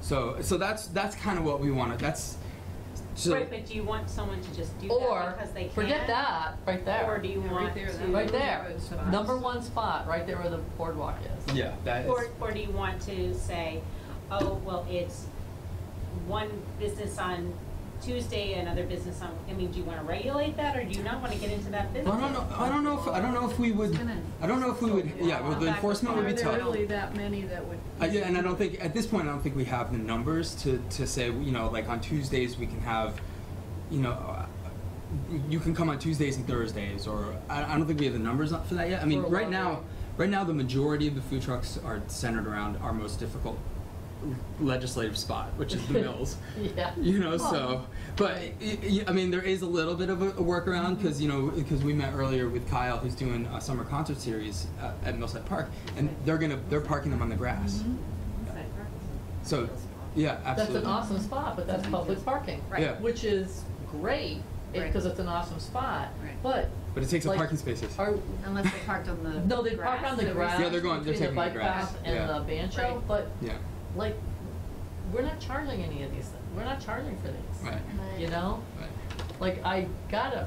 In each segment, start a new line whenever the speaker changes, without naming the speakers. So, so that's, that's kind of what we wanted, that's, so,
Right, but do you want someone to just do that
Or,
because they can?
forget that, right
Or
there,
do you
Yeah, right
want
there,
to?
that-
right there,
Those spots.
number one spot, right there where the boardwalk is.
yeah, that is,
Or, or do you want to say, oh, well, it's one business on Tuesday, another business on, I mean, do you want to regulate that or do you not want to get into that
I
business?
don't know, I don't know if, I don't know if we would,
gonna
I don't know if we would,
still
yeah, well, the
back
enforcement would
Are
be tough.
there really that many that would?
I, yeah, and I don't think at this point I don't think we have the numbers to to say you know like on Tuesdays we can have, you know, uh, you can come on Tuesdays and Thursdays or I, I don't think we have the numbers up for that yet. I mean
For a
right
long
now,
time.
right now the majority of the food trucks are centered around our most difficult legislative spot, which is the mills.
Yeah.
You know, so, but y- y- I mean, there is a little bit of a, a workaround
Mm-hmm.
because you know because we met earlier with Kyle, who's doing a summer concert series uh, at Millside Park, and they're gonna they're parking them on the grass. So, yeah,
Mm-hmm. That's
absolutely.
an awesome spot, but that's public parking.
Right. Yeah.
Which is great,
Right.
because it's an awesome spot,
Right.
but
But it takes up
like,
parking spaces.
are,
Unless they parked on the.
no, they park on the grass.
Yeah, they're going- they're
between
taking the
bike
grass,
path
yeah.
And the bancho,
Right.
but
Yeah,
like, we're not charging any of these, things. we're not charging for these.
right,
You know,
right.
like I gotta,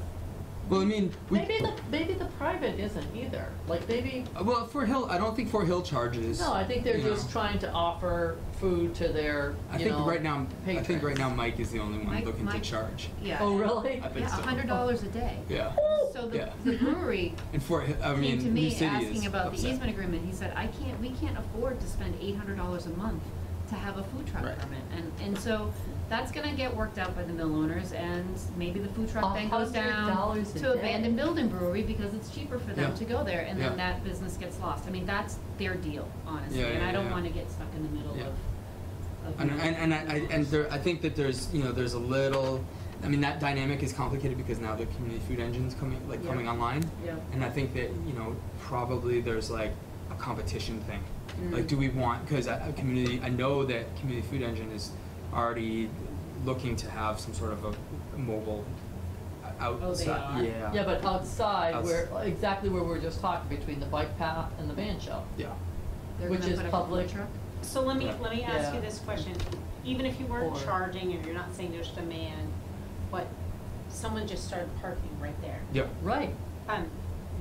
Well, I mean, we,
maybe the, maybe the private isn't either, like maybe,
uh, well, Fort Hill, I don't think Fort Hill charges.
no, I think they're
you know.
just trying to offer food to their,
I
you
think
know,
right now, I think
patrons.
right now Mike is the only one
Mike-
looking to
Mike-
charge.
Yeah.
Oh, really?
I think
Yeah, a
so.
hundred dollars a day.
Yeah,
So
Yeah.
the, the brewery
and Fort Hill, I
came to
mean, New
me
City is
asking about the
upset.
easement agreement, he said, I can't, we can't afford to spend eight hundred dollars a month to have a food truck
Right.
permit, and, and so that's gonna get worked out by the mill owners, and maybe the food truck then goes down
$100 a
to
day.
abandoned building brewery, because it's cheaper for them
Yeah.
to go there, and
Yeah.
then that business gets lost, I mean, that's their deal, honestly,
Yeah,
and
yeah,
I don't
yeah.
wanna get stuck in the middle of,
Yeah.
of.
And
mill-
and and I, I
mill
and
owners.
there, I think that there's you know there's a little, I mean that dynamic is complicated because now the community food engine's coming like
Yeah.
coming online,
Yeah.
and I think that you know probably there's like a competition thing, like do we want because a community I know that community food engine is already looking to have some sort of a mobile uh, outside
Oh, they are?
yeah
Yeah, but outside,
Outs-
where, exactly where we were just talking, between the bike path and the van shell.
yeah
They're
which
gonna
is
put up a food
public.
truck?
So let me,
Yeah.
let me ask you
Yeah.
this question, even if you weren't
Or-
charging or you're not saying there's demand, but someone just started parking right there.
yeah
Right,
Um,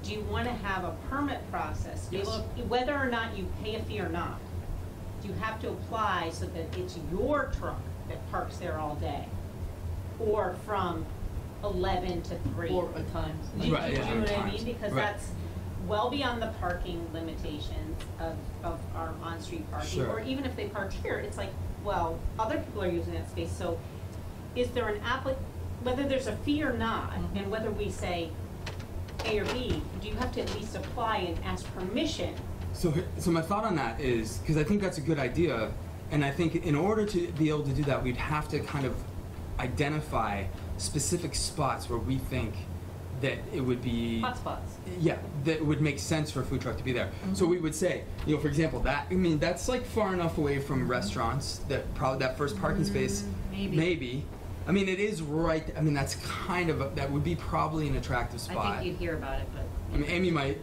do you want to have a permit process? Do you
Yes.
look- Whether or not you pay a fee or not, do you have to apply so that it's your truck that parks there all day? Or from eleven to three?
or at times.
Do you,
Right,
do you
yeah.
know what I
Times.
mean? Because
Right.
that's well beyond the parking limitations of, of our on-street parking.
Sure.
Or even if they park here, it's like, well, other people are using that space, so is there an applic, whether there's a fee or not,
Mm-hmm.
Mhm.
and whether we say A or B, do you have to at least apply and ask permission?
So, h- so my thought on that is because I think that's a good idea, and I think in order to be able to do that, we'd have to kind of identify specific spots where we think that it would be
Hotspots.
yeah, that it would make sense for a food truck to be there.
Mm-hmm.
So we would say, you know, for example, that I mean, that's like far enough away from restaurants that probably that first parking space,
Mm, maybe.
I mean, it is right. I mean, that's kind of a, that would be probably an attractive
I
spot.
think you'd hear about it, but.
I mean, Amy might,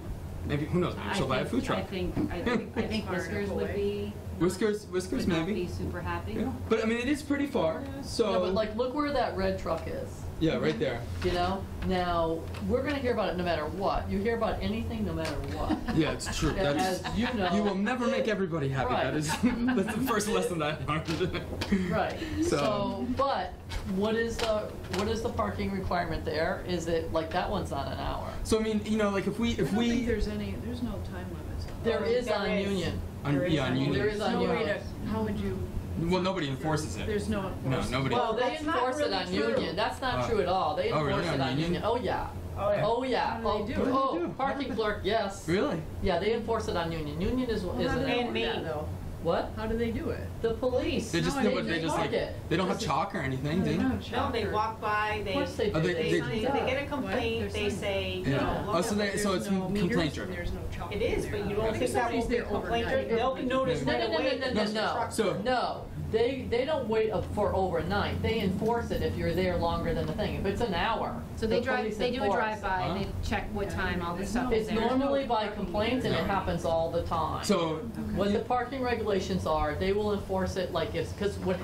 maybe who knows? Maybe
I
she'll buy a
think-
food truck.
I think, I think, I think Whiskers would be.
Whiskers, Whiskers,
Would not
maybe.
be super happy.
Yeah. But I mean, it is pretty far, so.
No, but like, look where that red truck is,
Yeah, right there.
you know? Now, we're gonna hear about it no matter what. You hear about anything no matter what.
Yeah, it's true.
Yeah,
That's,
as
you,
you know-
you will never make everybody happy. That
Right.
is, that's the first lesson I learned.
Right,
So-
so, but what is the, what is the parking requirement there? Is it, like, that one's not an hour?
So I mean, you know, like if we,
I
if
don't think
we,
there's any, there's no time limits. on
There
Um,
is
there
on
is.
Union.
on,
there is
yeah, on
a-
that.
Union.
there is
There's no
on
way
yours.
to, how would you?
well, nobody enforces it.
There's no
no,
enforcement.
nobody.
Well, they
That's not
enforce it
really
on
true.
Union, that's not
Oh.
true at all. They
Oh, really?
enforce
On
it on
Union?
Union, oh, yeah.
Oh, yeah.
Oh, yeah,
How
oh,
do they do it?
What do they do?
oh, parking clerk, yes.
really?
Yeah, they enforce it on Union. Union is, is
Well, how do
an
they
And
do
hour.
me.
that, though?
What?
How do they do it?
The police.
They just,
No,
no,
I
but they
didn't
just like,
park it.
they don't have
This is-
chalk or anything, do they?
No,
No, they
shocker.
walk by,
Of
they,
course they
Oh,
do.
they- they-
they, they get a
What?
complaint, they
There's some-
say, you
Yeah.
know,
Oh, so
look,
they- so
There's
it's
no meters
complaint
and
driven.
There's no chalk.
it is,
there.
but you don't
I
think that
somebody's
will be
there
complaint,
overnight.
they'll notice
No,
right
no, no,
away
no,
that
no,
there's a
no.
truck
So-
No, they, they don't wait up for overnight, they enforce it if you're there longer than the thing, if it's an hour.
So they
the police
drive, they do a
enforce.
drive-by, and they
Huh?
check what time all this stuff is
It's
there.
normally by complaint and it
No.
happens all the time.
So
What the parking regulations are, they will enforce it like if, because what